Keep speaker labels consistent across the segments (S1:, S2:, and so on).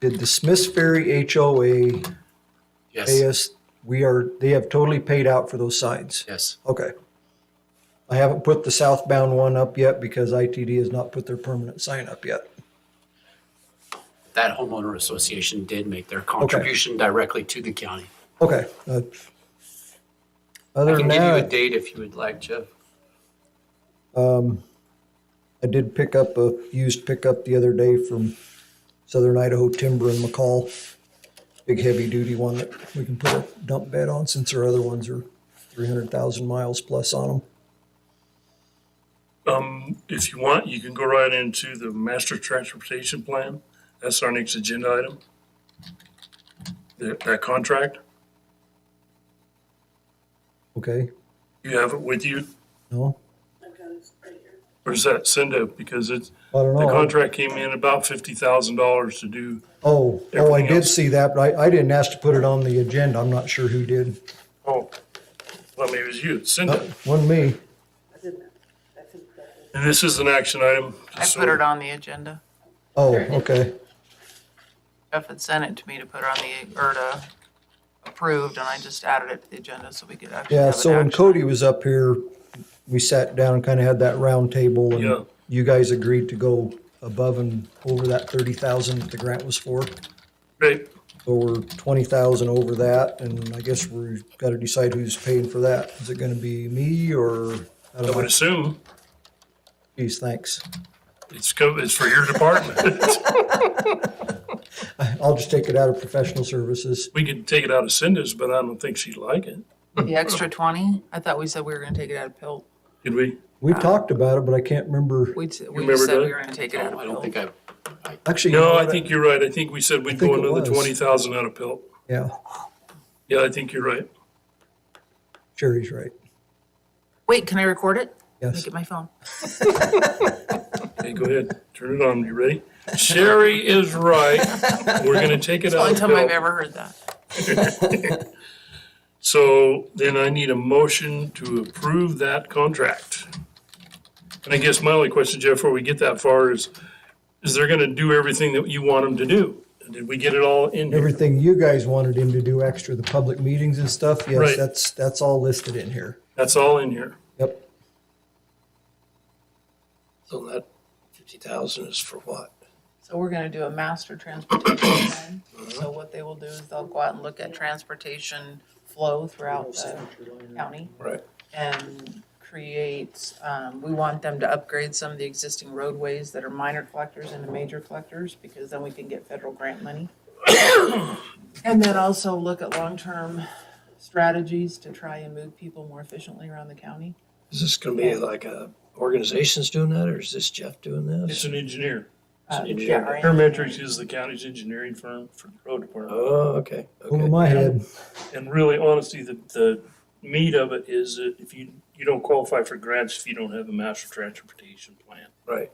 S1: Did the Smiths Ferry HOA pay
S2: Yes,
S1: us? We are, they have totally paid out for those signs.
S2: yes.
S1: Okay. I haven't put the southbound one up yet because ITD has not put their permanent sign up yet.
S2: That homeowner association did make their contribution directly to the county.
S1: Okay. uh,
S2: I
S1: Other
S2: can
S1: than
S2: give you a
S1: that,
S2: date if you would like, Jeff.
S1: I did pick up a used pickup the other day from Southern Idaho Timber in McCall. Big heavy duty one that we can put a dump bed on since our other ones are three hundred thousand miles plus on them.
S3: Um, if you want, you can go right into the master transportation plan. That's our next agenda item. That, that contract,
S1: Okay,
S3: you have it with you,
S1: no,
S3: or is that send it? Because it's,
S1: I don't
S3: the
S1: know.
S3: contract came in about fifty thousand dollars to do.
S1: Oh, oh, I
S3: Everything
S1: did
S3: else.
S1: see that, but I, I didn't ask to put it on the agenda. I'm not sure who did.
S3: Oh, well, maybe it was you, send
S1: Uh,
S3: it.
S1: Wasn't me.
S3: And this is an action item.
S4: I put it on the agenda.
S1: Oh, okay,
S4: Jeff had sent it to me to put on the, or to approved, and I just added it to the agenda so we could actually
S1: yeah,
S4: have an
S1: so when
S4: action.
S1: Cody was up here, we sat down and kinda had that round table
S3: Yeah.
S1: and you guys agreed to go above and over that thirty thousand that the grant was for.
S3: Great,
S1: So we're twenty thousand over that, and I guess we've gotta decide who's paying for that. Is it gonna be me or, I
S3: I
S1: don't
S3: would
S1: know,
S3: assume
S1: geez, thanks.
S3: it's, co- it's for your department.
S1: I'll just take it out of professional services.
S3: We can take it out of Cinda's, but I don't think she'd like it.
S4: The extra twenty, I thought we said we were gonna take it out of pill.
S3: Did we?
S1: We talked about it, but I can't remember.
S4: We, t- we
S3: remember
S4: said we
S3: that?
S4: were gonna take it out
S2: No, I don't
S4: of pill.
S2: think I,
S1: Actually,
S3: No, I think you're right. I think we said
S1: I
S3: we'd
S1: think
S3: go
S1: it
S3: another
S1: was.
S3: twenty thousand out of Pelt.
S1: Yeah,
S3: Yeah, I think you're right.
S1: Sherry's right.
S4: Wait, can I record it?
S1: Yes.
S4: Look at my phone.
S3: Okay, go ahead. Turn it on. You ready? Sherry is right. We're gonna take it out
S4: Only
S3: of
S4: time I've
S3: Pelt.
S4: ever heard that.
S3: So then I need a motion to approve that contract. And I guess my only question, Jeff, before we get that far is, is they're gonna do everything that you want them to do? Did we get it all in here?
S1: Everything you guys wanted him to do extra, the public meetings and stuff, yes,
S3: Right.
S1: that's, that's all listed in here.
S3: That's all in here.
S1: Yep.
S5: So that fifty thousand is for what?
S4: So we're gonna do a master transportation plan. So what they will do is they'll go out and look at transportation flow throughout the county.
S5: Right.
S4: And create, um, we want them to upgrade some of the existing roadways that are minor collectors into major collectors because then we can get federal grant money. And then also look at long-term strategies to try and move people more efficiently around the county.
S5: Is this gonna be like a organization's doing that or is this Jeff doing
S3: It's
S5: this?
S3: an engineer.
S4: Uh, yeah, our
S3: Parametrics is the county's engineering firm for the road department.
S5: Oh, okay,
S1: Over
S5: okay.
S1: my head.
S3: And really honestly, the, the meat of it is that if you, you don't qualify for grants if you don't have a master transportation plan.
S5: Right.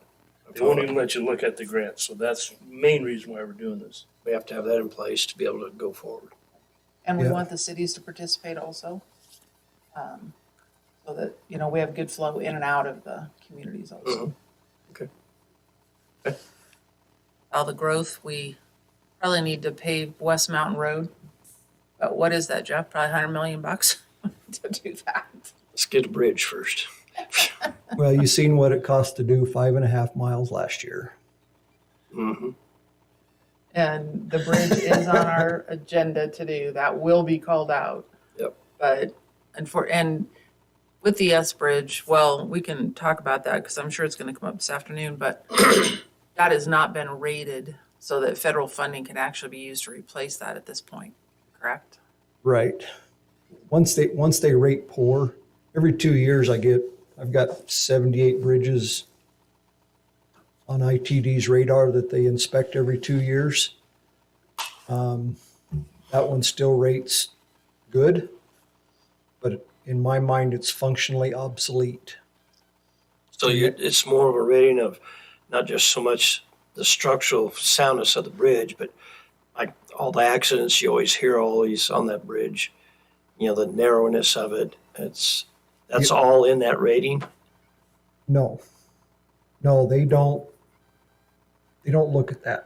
S3: They won't even let you look at the grants, so that's the main reason why we're doing this.
S5: We have to have that in place to be able to go forward.
S4: And we
S1: Yeah.
S4: want the cities to participate also. um, So that, you know, we have good flow in and out of the communities also.
S5: Okay.
S4: All the growth, we probably need to pave West Mountain Road. But what is that, Jeff? Probably hundred million bucks to do that.
S5: Let's get a bridge first.
S1: Well, you seen what it cost to do five and a half miles last year.
S5: Mm-hmm.
S4: And the bridge is on our agenda to do. That will be called out.
S5: Yep.
S4: But, and for, and with the S Bridge, well, we can talk about that because I'm sure it's going to come up this afternoon, but that has not been rated so that federal funding can actually be used to replace that at this point, correct?
S1: Right. Once they, once they rate poor, every two years I get, I've got seventy-eight bridges on ITD's radar that they inspect every two years. Um, That one still rates good, but in my mind, it's functionally obsolete.
S5: So you, it's more of a rating of not just so much the structural soundness of the bridge, but like all the accidents you always hear always on that bridge, you know, the narrowness of it. It's, that's all in that rating?
S1: No. No, they don't, they don't look at that.